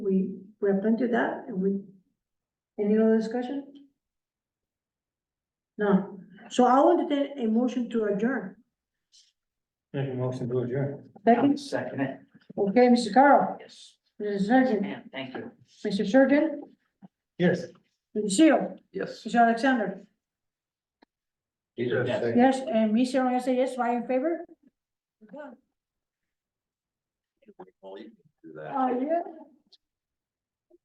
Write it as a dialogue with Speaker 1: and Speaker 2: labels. Speaker 1: we're done to that, and we, any other discussion? No, so I'll entertain a motion to adjourn.
Speaker 2: Make a motion to adjourn.
Speaker 1: Second,
Speaker 3: Second it,
Speaker 1: okay, Mr. Carl,
Speaker 3: yes.
Speaker 1: Mr. Surgeon,
Speaker 3: Man, thank you.
Speaker 1: Mr. Surgeon,
Speaker 2: Yes.
Speaker 1: Mr. Seal,
Speaker 4: Yes.
Speaker 1: Mr. Alexander.
Speaker 3: Yes.
Speaker 1: Yes, and me, Sarah, I say yes, why in favor?
Speaker 4: Well, you can do that.
Speaker 1: Oh, yeah.